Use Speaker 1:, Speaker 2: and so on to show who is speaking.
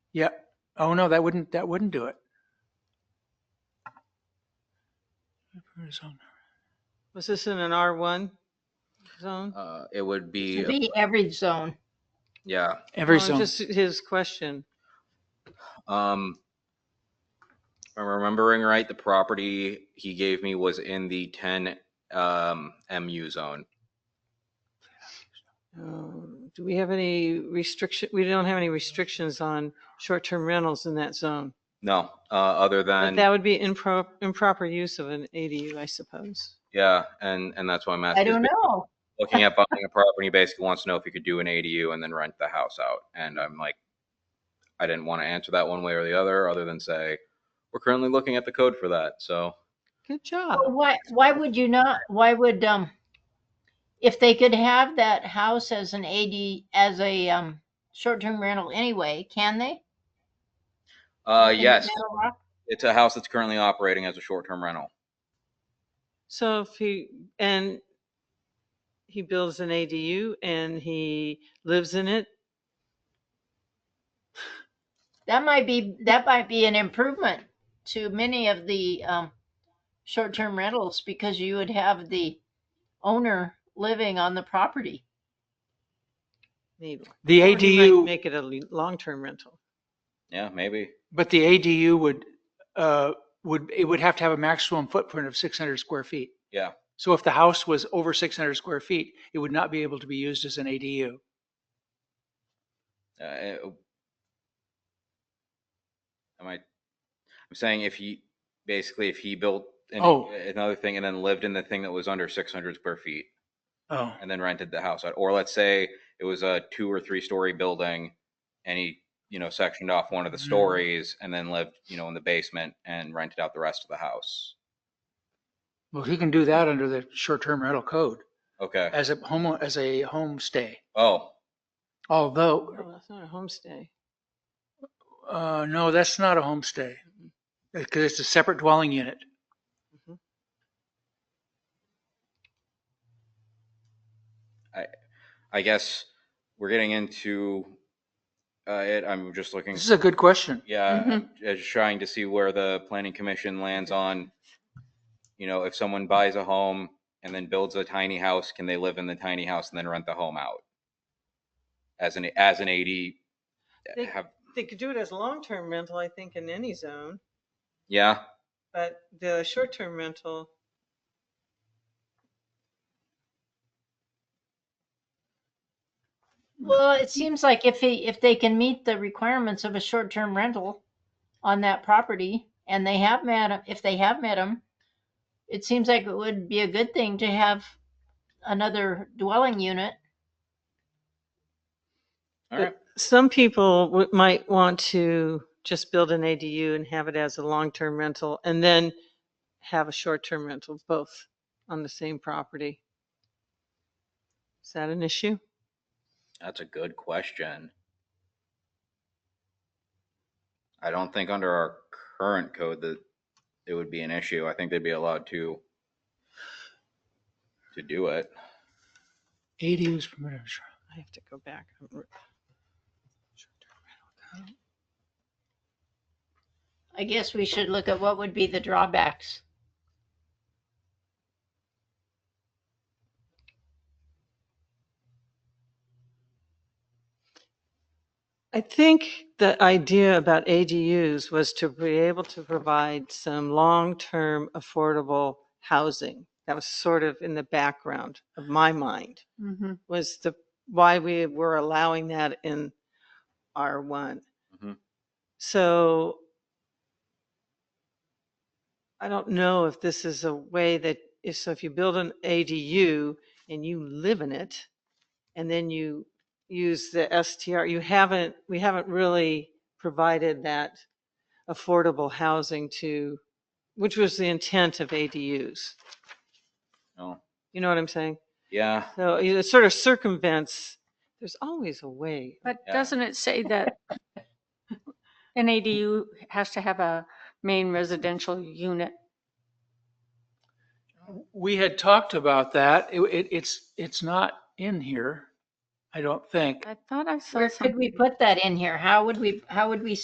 Speaker 1: Yeah. Oh, no, that wouldn't, that wouldn't do it.
Speaker 2: Was this in an R1 zone?
Speaker 3: Uh, it would
Speaker 4: Should
Speaker 3: be,
Speaker 4: be every zone.
Speaker 3: yeah,
Speaker 1: Every
Speaker 2: No,
Speaker 1: zone.
Speaker 2: Oh, Just his question.
Speaker 3: um, if I'm remembering right, the property he gave me was in the ten, um, MU zone.
Speaker 2: Um, Do we have any restriction, we don't have any restrictions on short-term rentals in that zone.
Speaker 3: No, uh, other
Speaker 2: But
Speaker 3: than,
Speaker 2: that would be impro- improper use of an ADU, I suppose.
Speaker 3: yeah, and, and that's why I'm asking.
Speaker 4: I don't know.
Speaker 3: Looking at buying a property, basically wants to know if you could do an ADU and then rent the house out. And I'm like, I didn't want to answer that one way or the other, other than say, we're currently looking at the code for that, so.
Speaker 2: Good job.
Speaker 4: Well, Why, why would you not, why would, um, if they could have that house as an AD, as a, um, short-term rental anyway, can they?
Speaker 3: Uh,
Speaker 4: Isn't it
Speaker 3: yes,
Speaker 4: better off?
Speaker 3: it's a house that's currently operating as a short-term rental.
Speaker 2: So if he, and he builds an ADU and he lives in it,
Speaker 4: That might be, that might be an improvement to many of the, um, short-term rentals because you would have the owner living on the property.
Speaker 2: maybe.
Speaker 1: The
Speaker 2: Or he might
Speaker 1: ADU,
Speaker 2: Make it a le- long-term rental.
Speaker 3: Yeah, maybe.
Speaker 1: but the ADU would, uh, would, it would have to have a maximum footprint of 600 square feet.
Speaker 3: Yeah.
Speaker 1: So if the house was over 600 square feet, it would not be able to be used as an ADU.
Speaker 3: Uh, it- Am I, I'm saying if he, basically if he built an-
Speaker 1: Oh.
Speaker 3: another thing and then lived in the thing that was under 600 square feet
Speaker 1: Oh.
Speaker 3: and then rented the house out, or let's say it was a two or three story building and he, you know, sectioned off one of the
Speaker 1: Mm.
Speaker 3: stories and then lived, you know, in the basement and rented out the rest of the house.
Speaker 1: Well, he can do that under the short-term rental code
Speaker 3: Okay.
Speaker 1: as a home, as a homestay.
Speaker 3: Oh,
Speaker 1: Although,
Speaker 2: Oh, that's not a homestay.
Speaker 1: uh, no, that's not a homestay. Because it's a separate dwelling unit.
Speaker 3: I guess we're getting into uh, it. I'm just looking.
Speaker 1: This is a good question.
Speaker 3: Yeah,
Speaker 4: Mhm.
Speaker 3: I'm j- just trying to see where the planning commission lands on, you know, if someone buys a home and then builds a tiny house, can they live in the tiny house and then rent the home out? As an, as an AD,
Speaker 2: They-
Speaker 3: have,
Speaker 2: They could do it as long-term rental, I think, in any zone,
Speaker 3: yeah,
Speaker 2: but the short-term rental,
Speaker 4: Well, it seems like if he, if they can meet the requirements of a short-term rental on that property and they have met, 'em- if they have met them, it seems like it would be a good thing to have another dwelling unit.
Speaker 3: all right.
Speaker 2: some people w- might want to just build an ADU and have it as a long-term rental and then have a short-term rental, both on the same property. Is that an issue?
Speaker 3: That's a good question. I don't think under our current code that it would be an issue. I think they'd be allowed to to do it.
Speaker 1: ADUs permitted.
Speaker 2: I have to go back. I'm re-
Speaker 4: I guess we should look at what would be the drawbacks.
Speaker 2: I think the idea about ADUs was to be able to provide some long-term affordable housing. That was sort of in the background of my mind, was the, why we were allowing that in R1.
Speaker 3: Mhm.
Speaker 2: So I don't know if this is a way that, if, so if you build an ADU and you live in it, and then you use the STR, you haven't, we haven't really provided that affordable housing to, which was the intent of ADUs.
Speaker 3: No.
Speaker 2: You know what I'm saying?
Speaker 3: Yeah.
Speaker 2: So it sort of circumvents, there's always a way.
Speaker 5: But
Speaker 3: Yeah.
Speaker 5: doesn't it say that an ADU has to have a main residential unit?
Speaker 1: We had talked about that. It, it, it's, it's not in here, I don't think.
Speaker 5: I thought I saw
Speaker 4: Where
Speaker 5: something.
Speaker 4: could we put that in here? How would we, how would we